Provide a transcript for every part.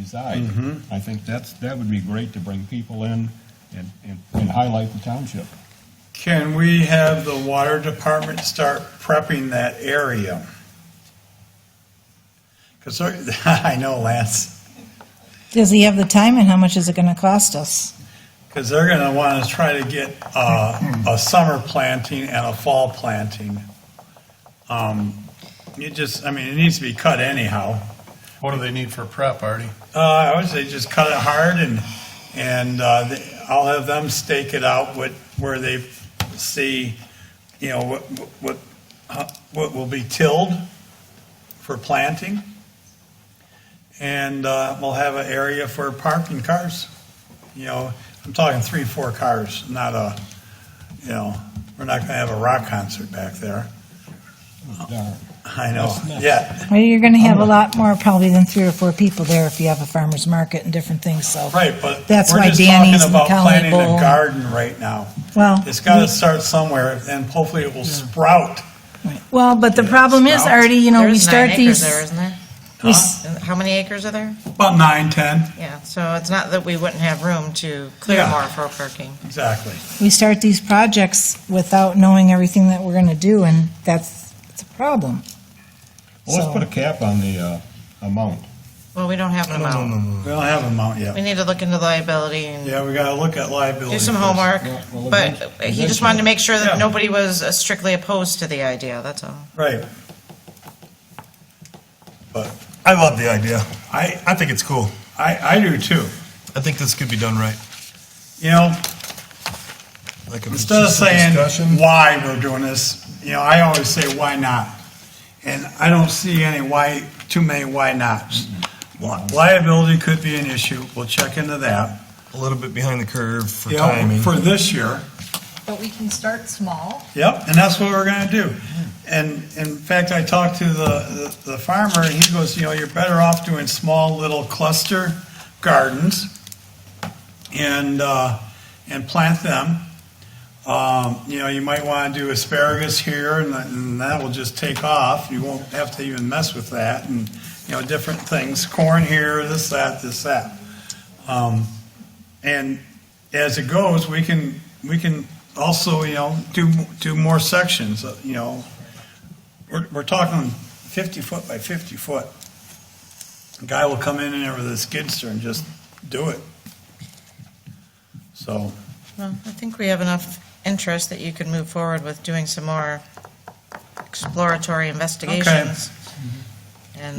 reside. I think that's, that would be great to bring people in and, and- and highlight the township. Can we have the water department start prepping that area? Because, I know, Lance, Does he have the time and how much is it gonna cost us? because they're going to want to try to get uh, a summer planting and a fall planting. Um, You just, I mean, it needs to be cut anyhow. What do they need for prep, Artie? Uh, I would say just cut it hard and, and uh, th- I'll have them stake it out what, where they see, you know, what, what, how- what will be tilled for planting. And uh, we'll have an area for parking cars. You know, I'm talking three, four cars, not a, you know, we're not gonna have a rock concert back there. Darn. I know, That's nuts. yeah, Well, you're gonna have a lot more probably than three or four people there if you have a farmer's market and different things, so. right, but That's we're why just Danny's talking and about Colony planting a Bowl. garden right now. Well, It's got to start somewhere, and hopefully it will sprout. well, but the problem is, Artie, you know, we There's nine start acres these. there, isn't there? we s- And How many acres are there? About nine, ten, Yeah, so it's not that we wouldn't have room to clear Yeah. more for parking. exactly. We start these projects without knowing everything that we're gonna do and that's, it's a problem. Well, let's So- put a cap on the, uh, amount. Well, we don't have an amount. We don't have a mount We yet. need to look into liability and Yeah, we got to look at liability. do some first. homework. Yeah, well, But eventually- he just wanted to make sure that Yeah. nobody was uh, strictly opposed to the idea, that's all. Right. But I love the idea. I, I think it's cool. I, I do too. I think this could be done right. You know, Like if it's instead of just a saying discussion, why we're doing this, you know, I always say why not? And I don't see any why, too many why nots. Li- Mm-hmm. Liability could be an issue. We'll check into that. a little bit behind the curve for Yep, timing. For this year. But we can start small. Yep, and that's what we're gonna do. And in fact, I talked to the, the farmer, and he goes, you know, you're better off doing small little cluster gardens and, uh, and plant them. Um, you know, you might wanna do asparagus here, and that- and that will just take off. You won't have to even mess with that, and, you know, different things, corn here, this, that, this, that. Um, and as it goes, we can, we can also, you know, do, do more sections, uh, you know. We're, we're talking fifty foot by fifty foot. A Guy will come in and over the skidster and just do it. So, Well, I think we have enough interest that you could move forward with doing some more exploratory investigations.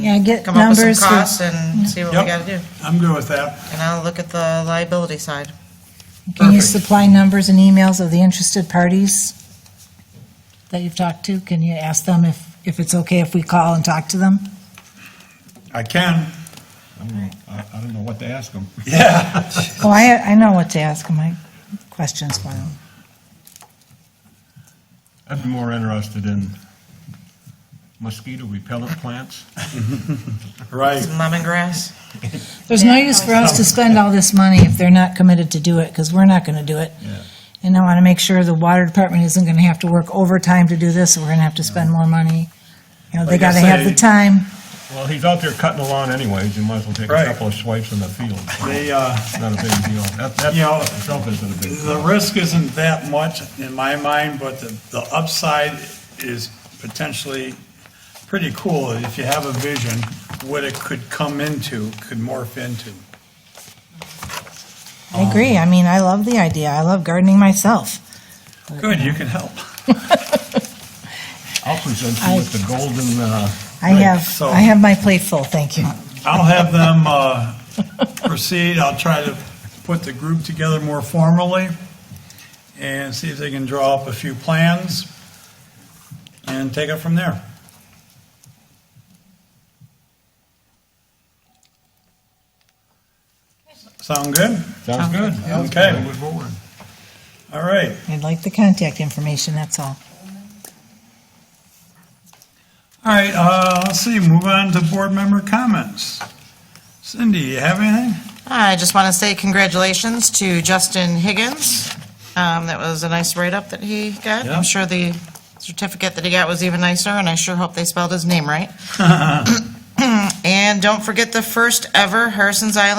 Yeah, And get come up with some numbers for- costs and see what we Yep. gotta do. I'm good with that. And I'll look at the liability side. Can you Perfect. supply numbers and emails of the interested parties that you've talked to? Can you ask them if, if it's okay if we call and talk to them? I can, I don't know, I, I don't know what to ask them. yeah. Oh, I, I know what to ask them, I, questions for them. I'd be more interested in mosquito repellent plants. Right. Some lemongrass. There's no use for us to spend all this money if they're not committed to do it, because we're not gonna do it. Yeah. And I wanna make sure the water department isn't gonna have to work overtime to do this, and we're gonna have to spend more money. You know, they Like I gotta have the say- time. Well, he's out there cutting the lawn anyways, you might as well take a Right. couple of swipes in the field. They, uh, It's not a big deal. That, that You know, itself isn't a big deal. The risk isn't that much in my mind, but the, the upside is potentially pretty cool. If you have a vision, what it could come into, could morph into. um, I agree, I mean, I love the idea, I love gardening myself. Good, you can help. I'll present I- you with the golden, uh, I Right, have, so- I have my plate full, thank you. I'll have them, uh, proceed. I'll try to put the group together more formally and see if they can draw up a few plans and take it from there. Sound good? sounds good. Okay. Move forward. All right. I'd like the contact information, that's all. All right, uh, let's see, move on to board member comments. Cindy, you have anything? I just want to say congratulations to Justin Higgins. Um, That was a nice write-up that he got. Yeah. I'm sure the certificate that he got was even nicer, and I sure hope they spelled his name right. And don't forget the first ever Harrison's Island